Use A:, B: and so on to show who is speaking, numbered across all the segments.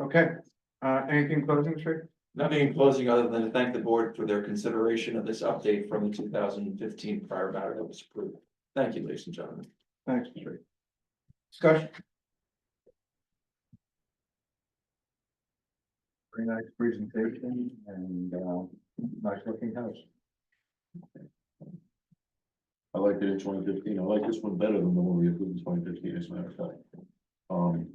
A: Okay, uh, anything closing, Sri?
B: Nothing in closing other than to thank the board for their consideration of this update from the two thousand and fifteen prior matter that was approved. Thank you, ladies and gentlemen.
A: Thanks, Sri. Discussion?
C: Very nice presentation and, uh, nice looking house. I liked it in twenty fifteen. I like this one better than the one we approved in twenty fifteen, as a matter of fact. Um.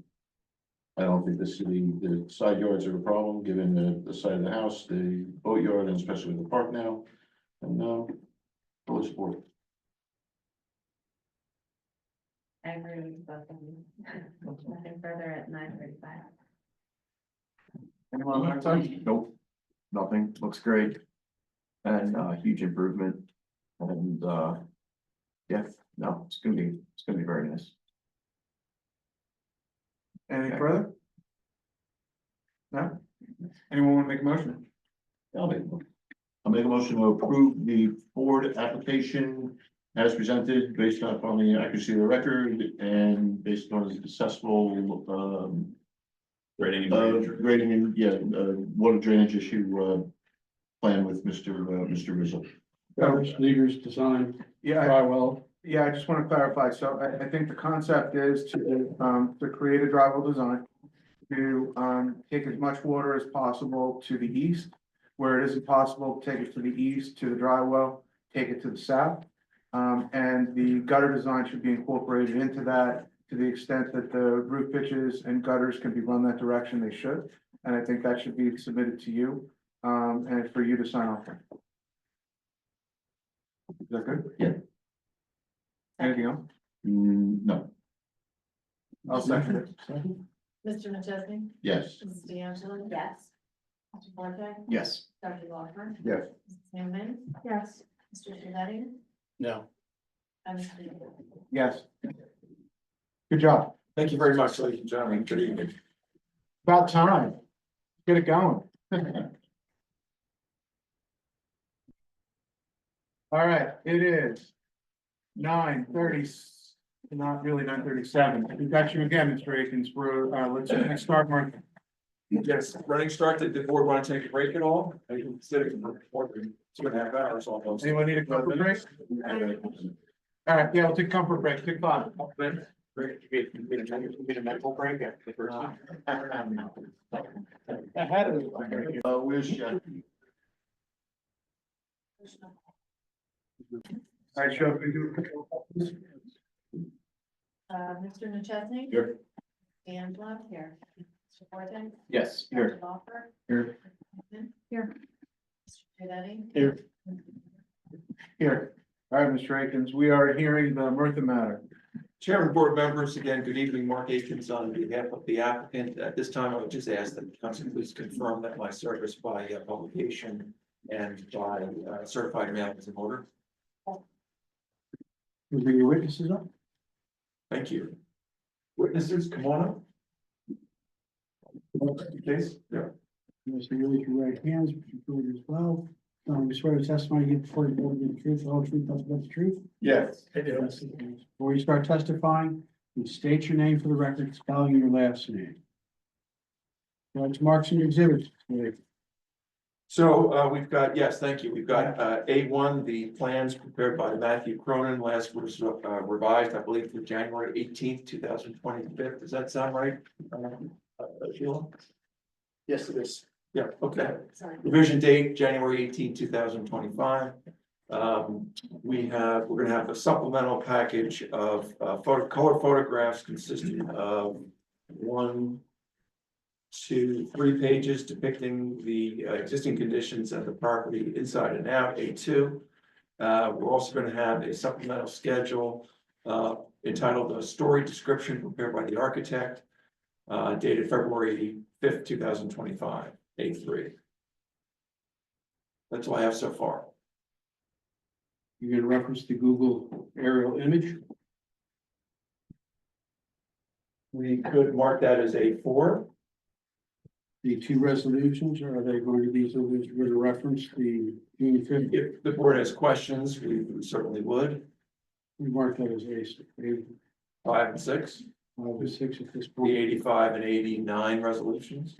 C: I don't think the city, the side yards are a problem, given the, the side of the house, the boatyard, and especially the park now. And, uh, full support.
D: I agree with both of you. Nothing further at nine thirty-five.
E: Anyone on that side? Nope, nothing, looks great. And uh huge improvement and uh. Yeah, no, it's gonna be, it's gonna be very nice.
A: Any further? No? Anyone want to make a motion?
C: I'll make, one. I'll make a motion to approve the Ford application as presented based upon the accuracy of the record and based on the successful, um,
B: Ready?
C: uh, grading and, yeah, uh, water drainage issue, uh, plan with Mr. uh, Mr. Rizzo.
A: Travis
F: Leaguer's design,
A: Yeah, I- yeah, I just want to clarify. So I, I think the concept is to, um, to create a drivable design. To, um, take as much water as possible to the east, where it is impossible, take it to the east, to the dry well, take it to the south. Um, and the gutter design should be incorporated into that to the extent that the roof pitches and gutters can be run that direction, they should. And I think that should be submitted to you, um, and for you to sign off on. Is that good?
C: Yeah.
A: Anything else?
C: Mm, no,
A: I'll second it.
D: Mr. McChesney?
C: yes.
D: Mrs. D'Angelo? Yes. Mr. Forte?
E: Yes.
D: Dr. Walker?
C: Yes.
D: Mrs. Newman? Yes. Mr. Shalani?
F: No.
D: And Mr. Leader?
A: Yes. Good job.
B: Thank you very much, ladies and gentlemen. Good evening.
A: About time. Get it going. All right, it is nine thirty, not really nine thirty-seven. We got you again, Mr. Akins. We're, uh, let's let's start, Mark.
B: Yes, running start, did the board want to take a break at all? I can sit in for four, two and a half hours almost.
A: Anyone need a comfort break? All right, yeah, we'll take comfort break. Take five.
C: Uh, where's Jackie?
A: All right, Sheriff, we do.
D: Uh, Mr. McChesney?
E: Here.
D: D'Angelo? Here. Mr. Forte?
E: Yes, here.
D: Dr. Walker?
E: Here.
D: Here. Mr. Shalani?
A: Here. Here. All right, Mr. Akins, we are hearing the Murtha matter.
B: Chairman, board members, again, good evening. Mark Akins on behalf of the applicant. At this time, I would just ask that the council please confirm that my service by uh, publication and by uh, certified mail is in order.
A: Will there be witnesses up?
B: Thank you. Witnesses, come on up. Please, yeah.
F: Yes, I really can write hands, but you do it as well. Um, you swear to testify you give before the board the truth, the whole truth, nothing but the truth.
E: Yes.
F: Before you start testifying, you state your name for the record, spelling your last name. That's marks in your exhibit.
B: So uh, we've got, yes, thank you. We've got uh, A one, the plans prepared by Matthew Cronin, last was uh, revised, I believe, for January eighteenth, two thousand twenty-fifth. Does that sound right? uh, Sheila?
E: Yes, it is.
B: Yeah, okay.
D: Sorry.
B: Revision date, January 18, thousand twenty-five. Um, we have, we're gonna have a supplemental package of uh photo, color photographs consisting of one, two, three pages depicting the uh, existing conditions of the property inside and out, A two. Uh, we're also gonna have a supplemental schedule uh entitled "A Story Description Prepared by the Architect," uh dated February fifth, two thousand twenty-five, A three. That's all I have so far.
F: You're gonna reference the Google aerial image.
B: We could mark that as A four.
F: The two resolutions, are they going to be, so we're gonna reference the June fifth
B: If the board has questions, we certainly would.
F: We marked that as A,
B: Five and six.
F: August sixth at this point.
B: the eighty-five and eighty-nine resolutions.